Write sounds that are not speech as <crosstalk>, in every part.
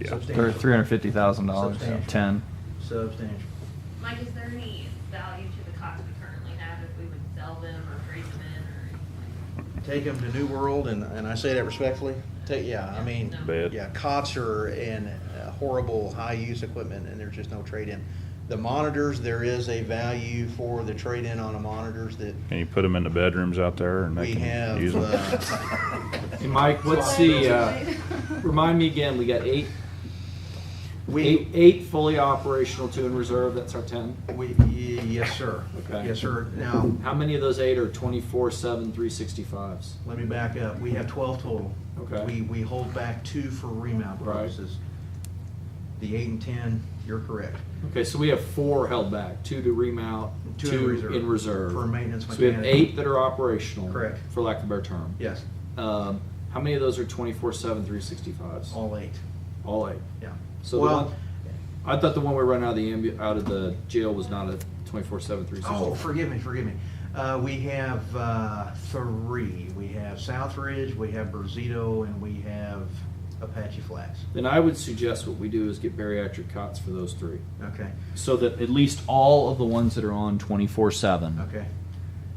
Yeah. Or three hundred fifty thousand dollars, Substantial. ten. Substantial. Mike, is there any value to the cots we currently have if we would sell them or trade them in or anything? Take them to New World, and, and I say that respectfully. Take, yeah, I mean, Bad. yeah, cots are in uh, horrible high-use equipment, and there's just no trade-in. The monitors, there is a value for the trade-in on the monitors that And you put them in the bedrooms out there and they we can have. use <laughs> them. uh, Hey, Mike, what's the, uh, remind me again, we got eight, eight, We, eight fully operational, two in reserve, that's our ten. we, y- yes, sir. Okay. Yes, sir. Now, How many of those eight are twenty-four, seven, three sixty-fives? Let me back up. We have twelve total. Okay. We, we hold back two for remount Right. purposes. The eight and ten, you're correct. Okay, so we have four held back, two to remount, Two in two reserve. in reserve. For maintenance So we have mechanic. eight that are operational. Correct. For lack of a better term. Yes, Um, how many of those are twenty-four, seven, three sixty-fives? all eight. All eight. Yeah. So the Well, one- I thought the one we run out of the ambu, out of the jail was not a twenty-four, seven, three sixty-five. oh, forgive me, forgive me. Uh, we have, uh, three. We have Southridge, we have Brazito, and we have Apache Flats. Then I would suggest what we do is get bariatric cots for those three. Okay, So that at least all of the ones that are on twenty-four seven, okay.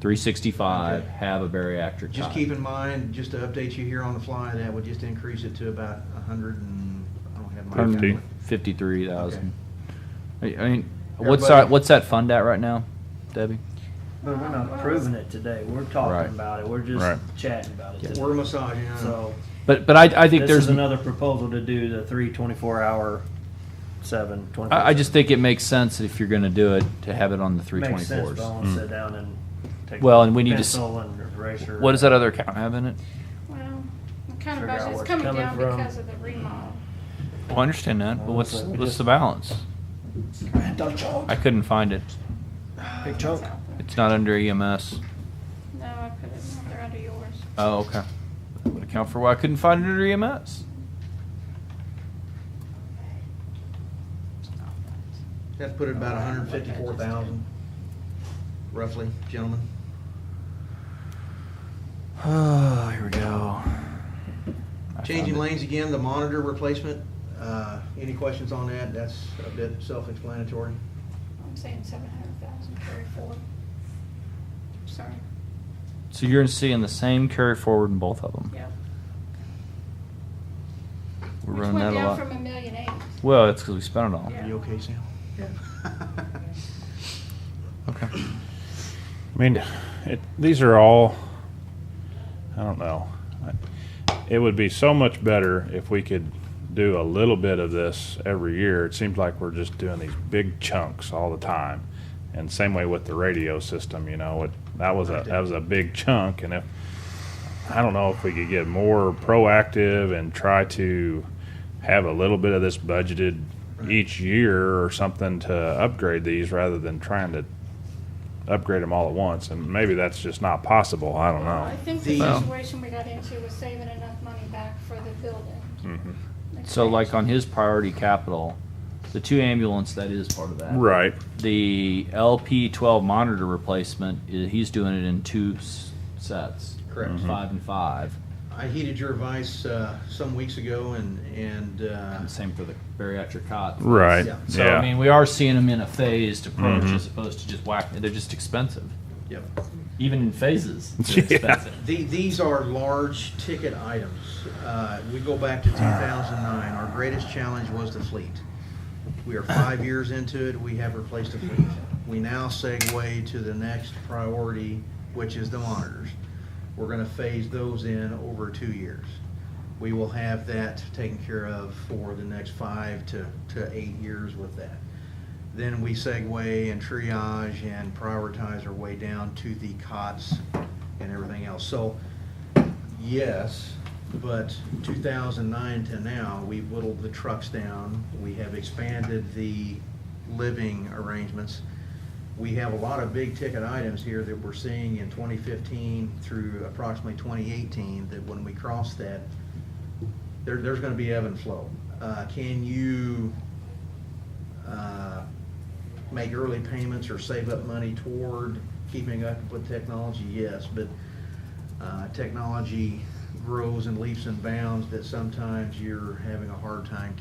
three sixty-five, Okay. have a bariatric Just cot. keep in mind, just to update you here on the fly, that would just increase it to about a hundred and, I don't have my. Pardon me? calculator. Fifty-three thousand. I I mean, what's Everybody- that, what's that fund at right now, Debbie? But we're not proving it today. We're talking Right. about it. We're just Right. chatting about it. We're Today. massaging. it. So But, but I, I think this there's, is another proposal to do the three 24 hour, seven 24. I, I just think it makes sense that if you're gonna do it, to have it on the three makes sense. twenty-fours. Mm. But I want to sit down and take Well, and we need to s- pencil and eraser. What does that other account have in it? Well, the kind Figure out of budget, where it's it's coming coming down from. because of the remodel. Well, I understand that, but what's, Honestly, we what's just- the balance? I couldn't find it. Big chunk. It's out there. It's not under E EMS. No, I put it in there under yours. Oh, okay. That would account for why I couldn't find it under E EMS. That's put it about hundred and fifty-four thousand, roughly, gentlemen. Oh, here we go. I Changing found it. lanes again, the monitor replacement, uh, any questions on that? That's a bit self-explanatory. I'm saying seven hundred thousand carry forward. Sorry, So you're seeing the same carry forward in both of them. yeah. We're Which running went that a down lot. from a million eight. Well, it's because we spent it all. Yeah. Are you okay, Sam? Okay. I mean, it, these are all, I don't know. I- It would be so much better if we could do a little bit of this every year. It seems like we're just doing these big chunks all the time. And same way with the radio system, you know, it, that was a, that was a big chunk. And if, I don't know if we could get more proactive and try to have a little bit of this budgeted each year or something to upgrade these rather than trying to upgrade them all at once, and maybe that's just not possible. I don't I know. think the Well- situation we got into was saving enough money back for the building. Mm-hmm. Like So, like changed. on his priority capital, the two ambulance that is part of that. Right. The LP12 monitor replacement, i- he's doing it in two s- sets. Correct. Mhm. Five and five. <laughs> I heeded your advice, uh, some weeks ago and, and, uh, And same for the bariatric cot. Right. Yeah. Mm-hmm. So I mean, we are seeing them in a phased approach as opposed to just whack. They're just expensive, yep. even in phases. They're Yeah. expensive. The- These are large ticket items. Uh, We go back to 2009. Our greatest challenge was the fleet. We are five years into it, we have replaced the fleet. We now segue to the next priority, which is the monitors. We're going to phase those in over two years. We will have that taken care of for the next five to to eight years with that. Then we segue and triage and prioritize our way down to the cots and everything else. So, yes, but 2009 to now, we whittled the trucks down. We have expanded the living arrangements. We have a lot of big-ticket items here that we're seeing in 2015 through approximately 2018, that when we cross that, there, there's gonna be ebb and flow. Uh, can you, uh, make early payments or save up money toward keeping up with technology? Yes, but, uh, technology grows in leaps and bounds that sometimes you're having a hard time